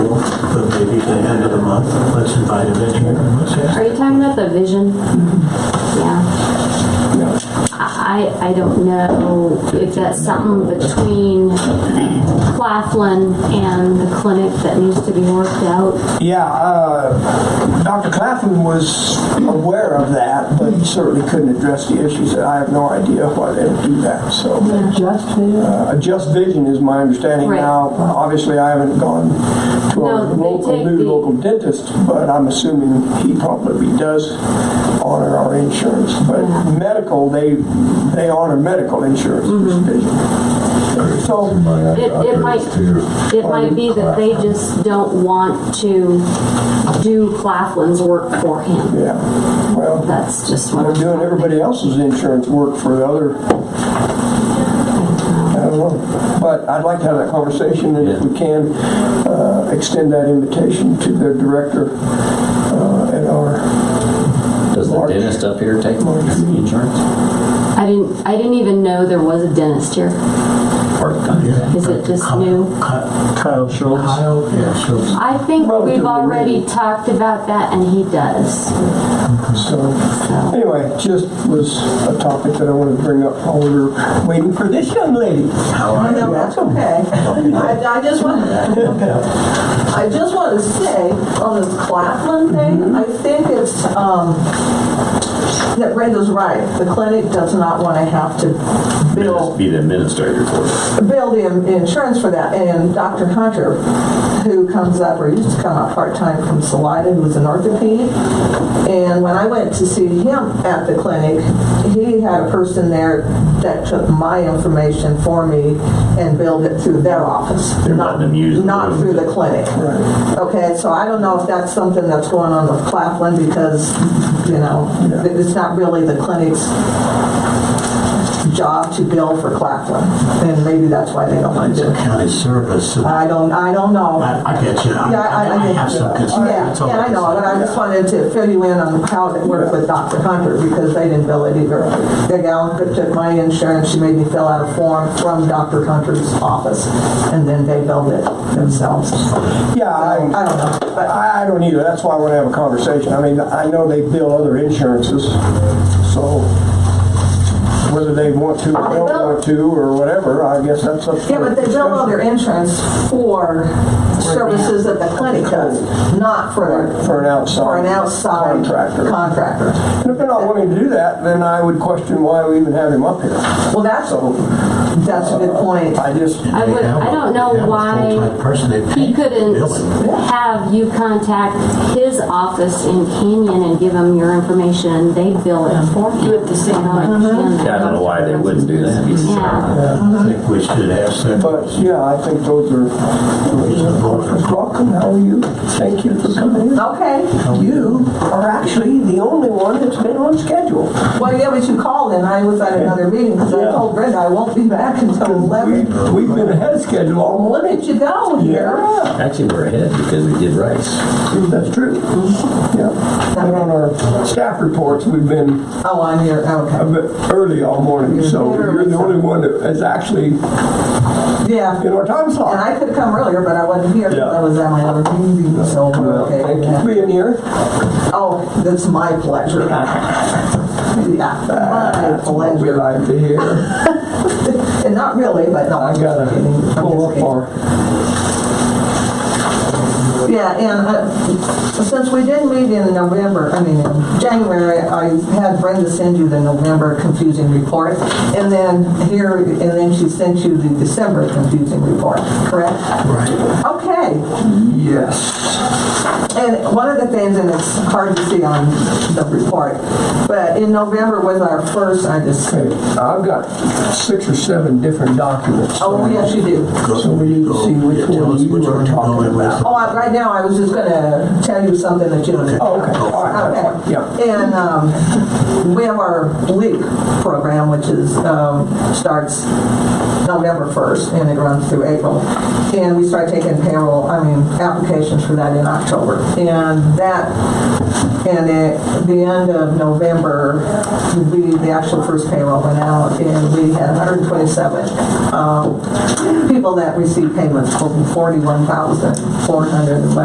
the end of the month, let's invite a veteran and let's ask. Are you talking about the vision? Yeah. I, I don't know if that's something between Claflin and the clinic that needs to be worked out. Yeah, uh, Dr. Claflin was aware of that, but he certainly couldn't address the issues. I have no idea why they would do that, so. Just there. Uh, Just Vision is my understanding Right. now. Obviously, I haven't gone to No, our they local, take new the- local dentist, but I'm assuming he probably does honor our insurance. But Yeah. medical, they, they honor medical insurance, Just Vision. Mm-hmm. So, My It- it doctor might- is too. It might be that they just don't want to do Claflin's work for him. yeah, well. That's just what They're I'm. doing everybody else's insurance work for the other. I don't know, but I'd like to have that conversation, and if we can, uh, extend that invitation to the director uh, at our, Does the March. dentist up here take insurance? I didn't, I didn't even know there was a dentist here. Part-time. Is it just new? Kyle Schultz. Kyle, yeah, Schultz. I think we've Relatively already new. talked about that and he does, so, so. anyway, just was a topic that I wanted to bring up while we were waiting for this young lady. How Oh, are no, you? that's okay. I, I just want, I just want to say on this Claflin thing, I think it's, um, that Brenda's right. The clinic does not want to have to bill Just Be the administrator for it. bill the in- insurance for that. And Dr. Hunter, who comes up, or used to come up part-time from Salida, who was an orthopedic. And when I went to see him at the clinic, he had a person there that took my information for me and billed it through their office. They're not- letting them use the Not room. through the clinic. Okay, so I don't know if that's something that's going on with Claflin because, you know, it's not really the clinic's job to bill for Claflin, and maybe that's why they don't want It's to do a it. county service, so I, I don't, I don't know. I get you. I, Yeah, I, I, I have some concern. yeah, That's all yeah, I can know, say. but I just wanted to fill you in on how it worked with Dr. Hunter, because they didn't bill it either. The gal that took my insurance, she made me fill out a form from Dr. Hunter's office, and then they billed it themselves. Yeah, I I, don't know, but I I don't either, that's why I want to have a conversation. I mean, I know they bill other insurances, so whether they want to or don't want to or whatever, I guess that's up to Yeah, but they bill all their insurance for services that the clinic does, not for. For an outside For an outside. contractor. Contractor. And if they're not wanting to do that, then I would question why we even have him up here. Well, that's, So that's a good point. I just, I would- I don't know why He couldn't have you contact his office in Canyon and give him your information, and they bill it for him. You have to say. I don't understand Yeah, I don't know that. why they wouldn't do that. Yeah, I think we should ask them. but yeah, I think those are. Welcome, how are you? Thank you for coming in. Okay, You are actually the only one that's been on schedule. well, yeah, but you called and I was at another meeting because I Yeah. told Brenda I won't be back until We- eleven. We've been ahead of schedule all Well, morning. Look at you go here. Yeah, Actually, we're ahead because we did rice. that's true. Yeah. And on our staff reports, we've been Oh, I'm here, a okay. bit early all morning, so you're the only one that is actually in Yeah, our time slot. and I could have come earlier, but I wasn't here because Yeah. I was at my other meeting, so, we're Well, Oh, okay. Thank you for being here. Oh, that's my pleasure. Yeah, my That's what we pleasure. like to hear. And not really, but no. I I'm just gotta kidding. I'm pull just up kidding. our, Yeah, and uh, since we did meet in November, I mean, in January, I had Brenda send you the November confusing report, and then here, and then she sent you the December confusing report, correct? Right. Okay, yes. and one of the things, and it's hard to see on the report, but in November was our first, I just, Okay, I've got six or seven different documents. oh, yes, you do. So we need to see which one you are talking about. Oh, I- right now, I was just gonna tell you something that you don't know. Oh, okay. All right, that's fine. Yeah. And um, we have our LEAP program, which is, um, starts November 1st, and it runs through April. And we start taking payroll, I mean, applications for that in October. And that, and at the end of November, we, the actual first payroll went out, and we had 127 um, people that received payments, totaling 41,400.